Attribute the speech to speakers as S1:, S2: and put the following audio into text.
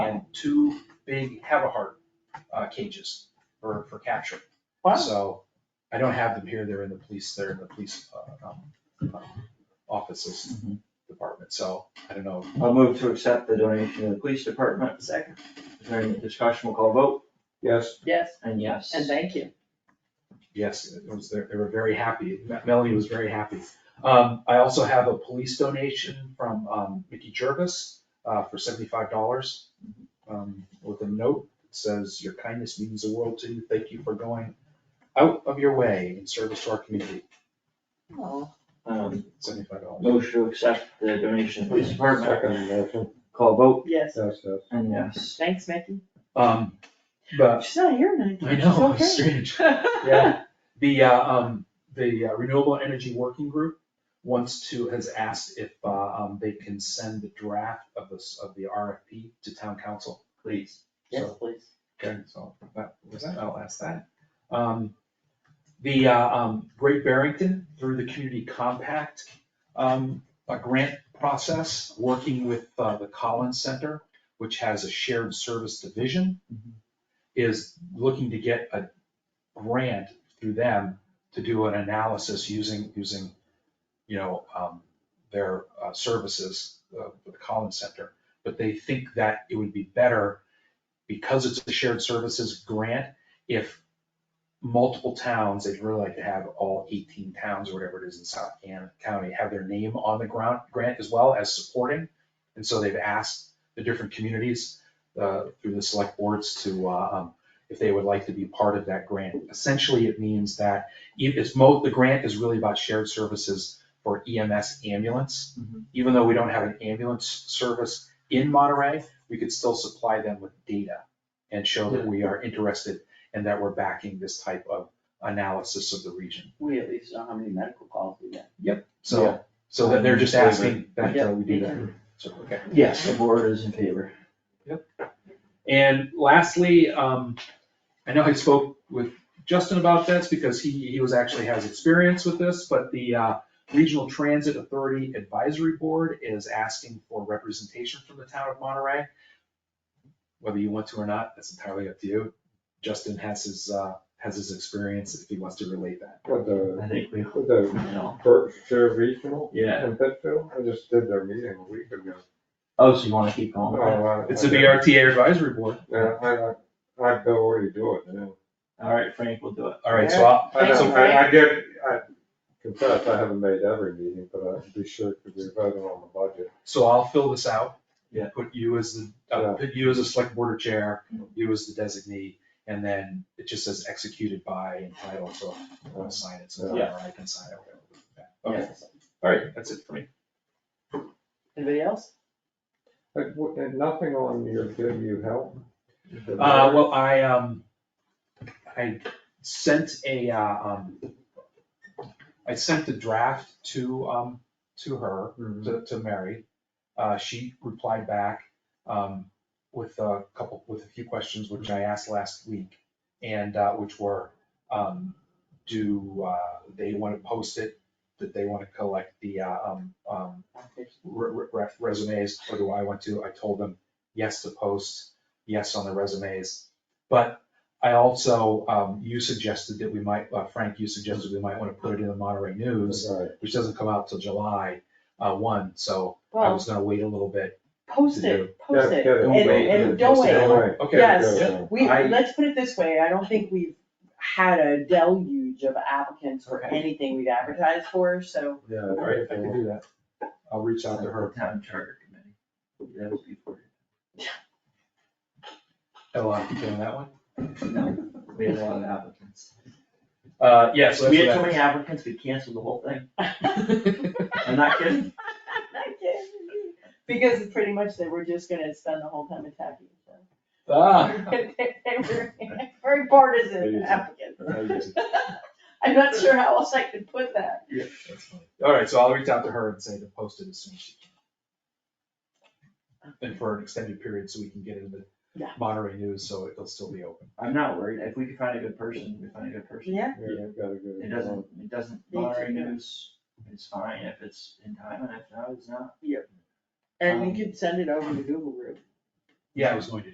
S1: two big Havahart uh, cages for, for capture.
S2: Wow,
S1: So I don't have them here, they're in the police, they're in the police uh, um, uh, offices department, so I don't know.
S3: I'll move to accept the donation to the police department.
S2: second,
S3: Is there any discussion? We'll call vote.
S4: Yes,
S2: yes,
S3: And yes.
S2: and thank you.
S1: Yes, it was, they they were very happy, Melanie was very happy. Um, I also have a police donation from um, Mickey Jervis uh, for seventy-five dollars Um, with a note that says, your kindness means the world to you, thank you for going out of your way in service to our community,
S2: Oh,
S3: Um,
S1: seventy-five dollars.
S3: Motion to accept the donation to the police department.
S4: second motion,
S3: Call vote.
S2: yes,
S4: yes, yes.
S3: And yes.
S2: thanks, Mickey.
S1: Um, but
S2: She's not here tonight.
S1: I know, it's
S2: She's okay.
S1: strange. Yeah, the, uh, um, the uh, Renewable Energy Working Group wants to, has asked if, uh, um, they can send the draft of this, of the RFP to town council.
S3: Please.
S2: Yes, please.
S1: Okay, so, that, was that, I'll ask that. Um, the, uh, um, Great Barrington, through the Community Compact, um, a grant process, working with, uh, the Collins Center, which has a shared service division, is looking to get a grant through them to do an analysis using, using, you know, um, their, uh, services, uh, for the Collins Center. But they think that it would be better because it's a shared services grant, if multiple towns, they'd really like to have all eighteen towns or whatever it is in South Can County have their name on the ground, grant as well as supporting. And so they've asked the different communities, uh, through the select boards to, uh, um, if they would like to be part of that grant. Essentially, it means that if it's mo, the grant is really about shared services for EMS ambulance.
S3: Mhm.
S1: Even though we don't have an ambulance service in Monterey, we could still supply them with data and show that we are interested and that we're backing this type of analysis of the region.
S2: We at least know how many medical calls we get.
S1: So, so that they're just asking that uh, we do that. So, okay.
S3: Yes, the board is in favor.
S1: And lastly, um, I know I spoke with Justin about this because he, he was actually has experience with this, but the, uh, Regional Transit Authority Advisory Board is asking for representation from the town of Monterey. Whether you want to or not, that's entirely up to you. Justin has his, uh, has his experience if he wants to relate that.
S4: With the,
S3: I think we, you
S4: with the
S3: know.
S4: Berkshire Regional
S3: Yeah.
S4: in Pittsfield, I just did their meeting a week ago.
S3: Oh, so you wanna keep going?
S4: Oh, I-
S1: It's a BRTA advisory board.
S4: Yeah, I, I, I'd go where you do it, yeah.
S3: All right, Frank, we'll do it.
S1: All right, so I'll,
S4: I
S2: Thanks,
S4: know, I, I
S2: Frank.
S4: get, I confess, I haven't made every meeting, but I'd be sure to be voting on the budget.
S1: so I'll fill this out.
S3: Yeah.
S1: Put you as the, uh, put you as a select board chair, you as the designee, and then it just says executed by and title, so I'll sign it, so
S3: Yeah.
S1: whatever I can sign it. whatever. Okay,
S2: Yes.
S1: all right, that's it for me.
S2: Anybody else?
S4: But, w- and nothing on your give you help?
S1: Uh, well, I, um, I sent a, uh, um, I sent the draft to, um, to her,
S4: Mhm.
S1: to, to Mary. Uh, she replied back, um, with a couple, with a few questions which I asked last week. And, uh, which were, um, do, uh, they wanna post it, that they wanna collect the, uh, um, um, re- re- resumes, or do I want to? I told them, yes to post, yes on the resumes. But I also, um, you suggested that we might, uh, Frank, you suggested we might wanna put it in the Monterey News
S4: Right.
S1: which doesn't come out till July, uh, one, so I
S2: Well,
S1: was gonna wait a little bit.
S2: post it, post
S4: Yeah,
S2: it,
S4: yeah,
S2: and,
S1: don't wait,
S2: and
S1: yeah,
S2: don't
S1: post it,
S2: wait.
S1: don't
S4: Right.
S1: Okay.
S2: Yes,
S4: Yeah.
S2: We,
S1: I-
S2: let's put it this way, I don't think we've had a deluge of applicants for
S1: Okay.
S2: anything we've advertised for, so
S4: Yeah.
S1: All right, I can do that. I'll reach out to her,
S3: Town Charter Committee. That was before.
S1: Ella, you doing that one?
S3: No, we had a lot of applicants.
S1: Uh, yeah, so
S3: We
S1: that's
S3: had so
S1: what
S3: many applicants, we canceled the whole thing. I'm
S2: I
S3: not kidding.
S2: can't. Because pretty much they were just gonna spend the whole time attacking each other.
S1: I- Ah,
S2: They were very partisan
S4: Amazing.
S2: applicants.
S4: Amazing.
S2: I'm not sure how else I could put that.
S1: that's funny. All right, so I'll reach out to her and say to post it as soon as she can. And for an extended period, so we can get into the
S2: Yeah.
S1: Monterey news, so it'll still be open.
S3: I'm not worried, if we can find a good person, we find a good person.
S2: Yeah,
S4: Yeah, you've got a good
S3: It doesn't, it doesn't
S2: Me too.
S3: bother news, it's fine if it's in time, and if not, it's not.
S2: and you could send it over to Google Group.
S1: Yeah, I was going to